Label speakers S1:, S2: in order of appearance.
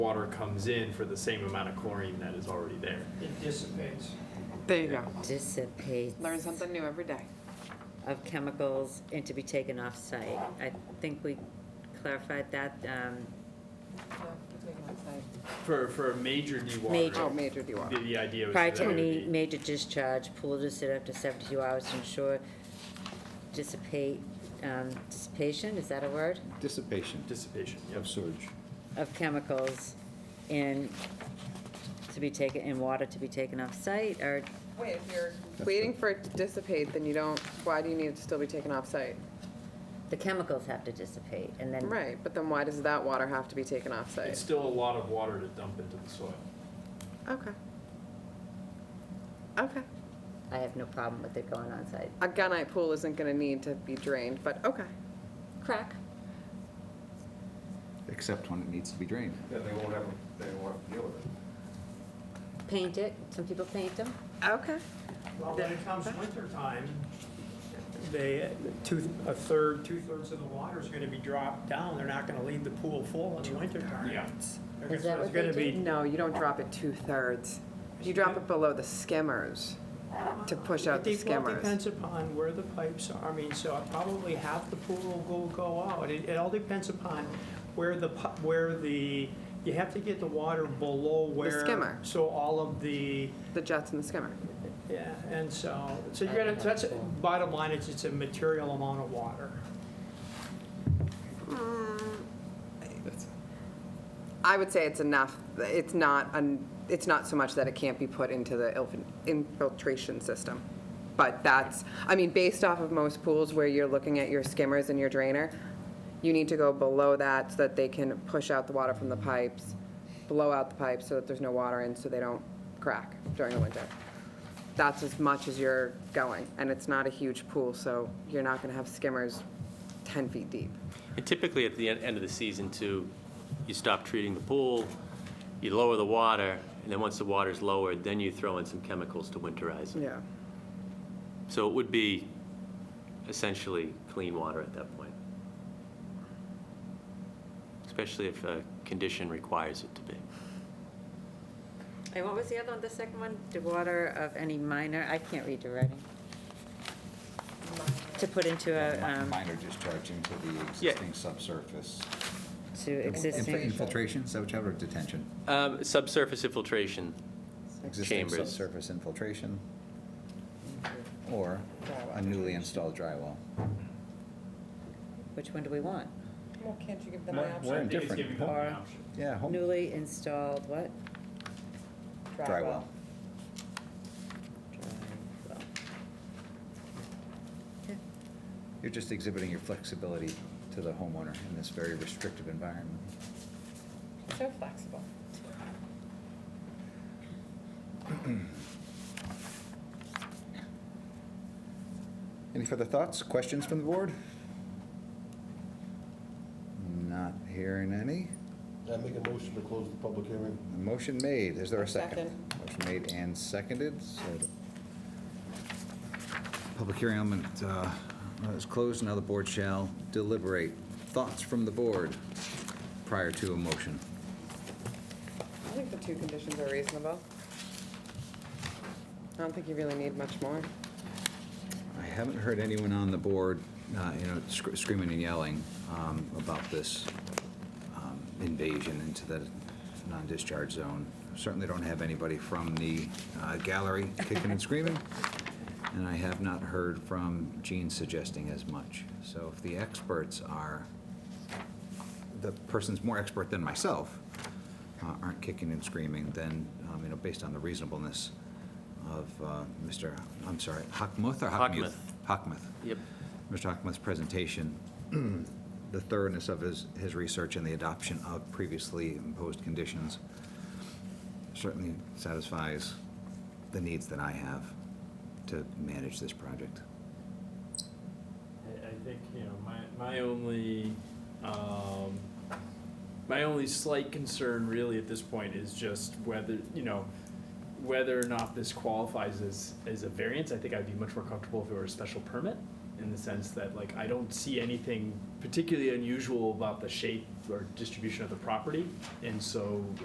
S1: water comes in for the same amount of chlorine that is already there.
S2: It dissipates.
S3: There you go.
S4: dissipates
S3: Learn something new every day.
S4: of chemicals and to be taken off-site. I think we clarified that. um,
S1: For, for a major
S3: Oh,
S1: dewatering,
S3: major
S1: the,
S3: DWI.
S1: the idea was
S4: Prior
S1: that
S4: to
S1: it would
S4: any
S1: be,
S4: major discharge, pool to sit after 72 hours to ensure dissipate, um, dissipation, is that a word?
S5: Dissipation
S1: dissipation, yep.
S5: of sewage.
S4: Of chemicals in, to be taken, in water to be taken off-site or
S3: Wait, if you're waiting for it to dissipate, then you don't, why do you need it to still be taken off-site?
S4: the chemicals have to dissipate and then.
S3: Right, but then why does that water have to be taken
S1: It's
S3: off-site?
S1: still a lot of water to dump into the soil.
S3: Okay. Okay.
S4: I have no problem with it going on-site.
S3: A gunite pool isn't gonna need to be drained, but okay. Crack.
S5: Except when it needs to be drained.
S6: Yeah, they won't have, they won't have to deal with it.
S4: Paint it, some people paint them.
S3: Okay.
S2: Well, when it comes wintertime, they, two, a third, two-thirds of the water is gonna be dropped down. They're not gonna leave the pool full in the wintertime.
S1: Yeah.
S2: They're
S4: Is
S2: gonna-
S4: that
S2: it's
S4: what they
S2: gonna be-
S4: do?
S3: No, you don't drop it two-thirds. You drop it below the skimmers to push out the
S2: It de- well,
S3: skimmers.
S2: depends upon where the pipes are. I mean, so probably half the pool will go, go out. It, it all depends upon where the, pu- where the, you have to get the water below where.
S3: skimmer.
S2: So all of the,
S3: The jets and the skimmer.
S2: yeah, and so, so you're gonna, that's, bottom line is it's a material amount of water.
S3: I would say it's enough, it's not, un- it's not so much that it can't be put into the ilf- infiltration system. But that's, I mean, based off of most pools where you're looking at your skimmers and your drainer, you need to go below that so that they can push out the water from the pipes, blow out the pipes so that there's no water in, so they don't crack during the winter. That's as much as you're going, and it's not a huge pool, so you're not gonna have skimmers 10 feet deep.
S7: And typically, at the en- end of the season, too, you stop treating the pool, you lower the water, and then once the water's lowered, then you throw in some chemicals to winterize it.
S3: Yeah.
S7: So it would be essentially clean water at that point, especially if a condition requires it to be.
S4: And what was the other one, the second one? The water of any minor, I can't read the writing. To put into a,
S5: Mi-
S4: um,
S5: Minor discharge into the
S7: Yeah.
S5: existing subsurface.
S4: to
S5: Inf-
S4: existing,
S5: Infiltration, is that what you have, or detention?
S7: Um, Subsurface infiltration,
S5: Existing
S7: Chambers.
S5: subsurface infiltration. Or a newly installed drywall.
S4: which one do we want?
S8: Well, can't you give them
S5: We're-
S8: an option?
S5: we're
S1: I think it's
S5: Different.
S1: giving them an option.
S5: Yeah, home
S4: Newly installed what?
S5: drywall.
S4: Drywall.
S5: You're just exhibiting your flexibility to the homeowner in this very restrictive environment.
S8: So flexible.
S5: Any further thoughts, questions from the board? Not hearing any.
S6: I make a motion to close the public hearing?
S5: Motion made, is there a
S8: A
S5: second? Motion made and seconded, so. the Public hearing element uh, is closed, now the board shall deliberate. Thoughts from the board prior to a motion?
S3: I think the two conditions are reasonable. I don't think you really need much more.
S5: I haven't heard anyone on the board, uh, you know, sc- screaming and yelling um, about this um, invasion into the non-discharge zone. Certainly don't have anybody from the uh, gallery kicking and screaming, and I have not heard from Gene suggesting as much. So if the experts are, the person's more expert than myself, uh, aren't kicking and screaming, then, um, you know, based on the reasonableness of uh, Mr., I'm sorry, Hockmuth or Hockmuth? Hockmuth.
S7: Yep.
S5: Mr. Hockmuth's presentation, the thoroughness of his, his research and the adoption of previously imposed conditions certainly satisfies the needs that I have to manage this project.
S1: I, I think, you know, my, my only, um, my only slight concern really at this point is just whether, you know, whether or not this qualifies as, as a variance. I think I'd be much more comfortable if it were a special permit in the sense that like I don't see anything particularly unusual about the shape or distribution of the property. And so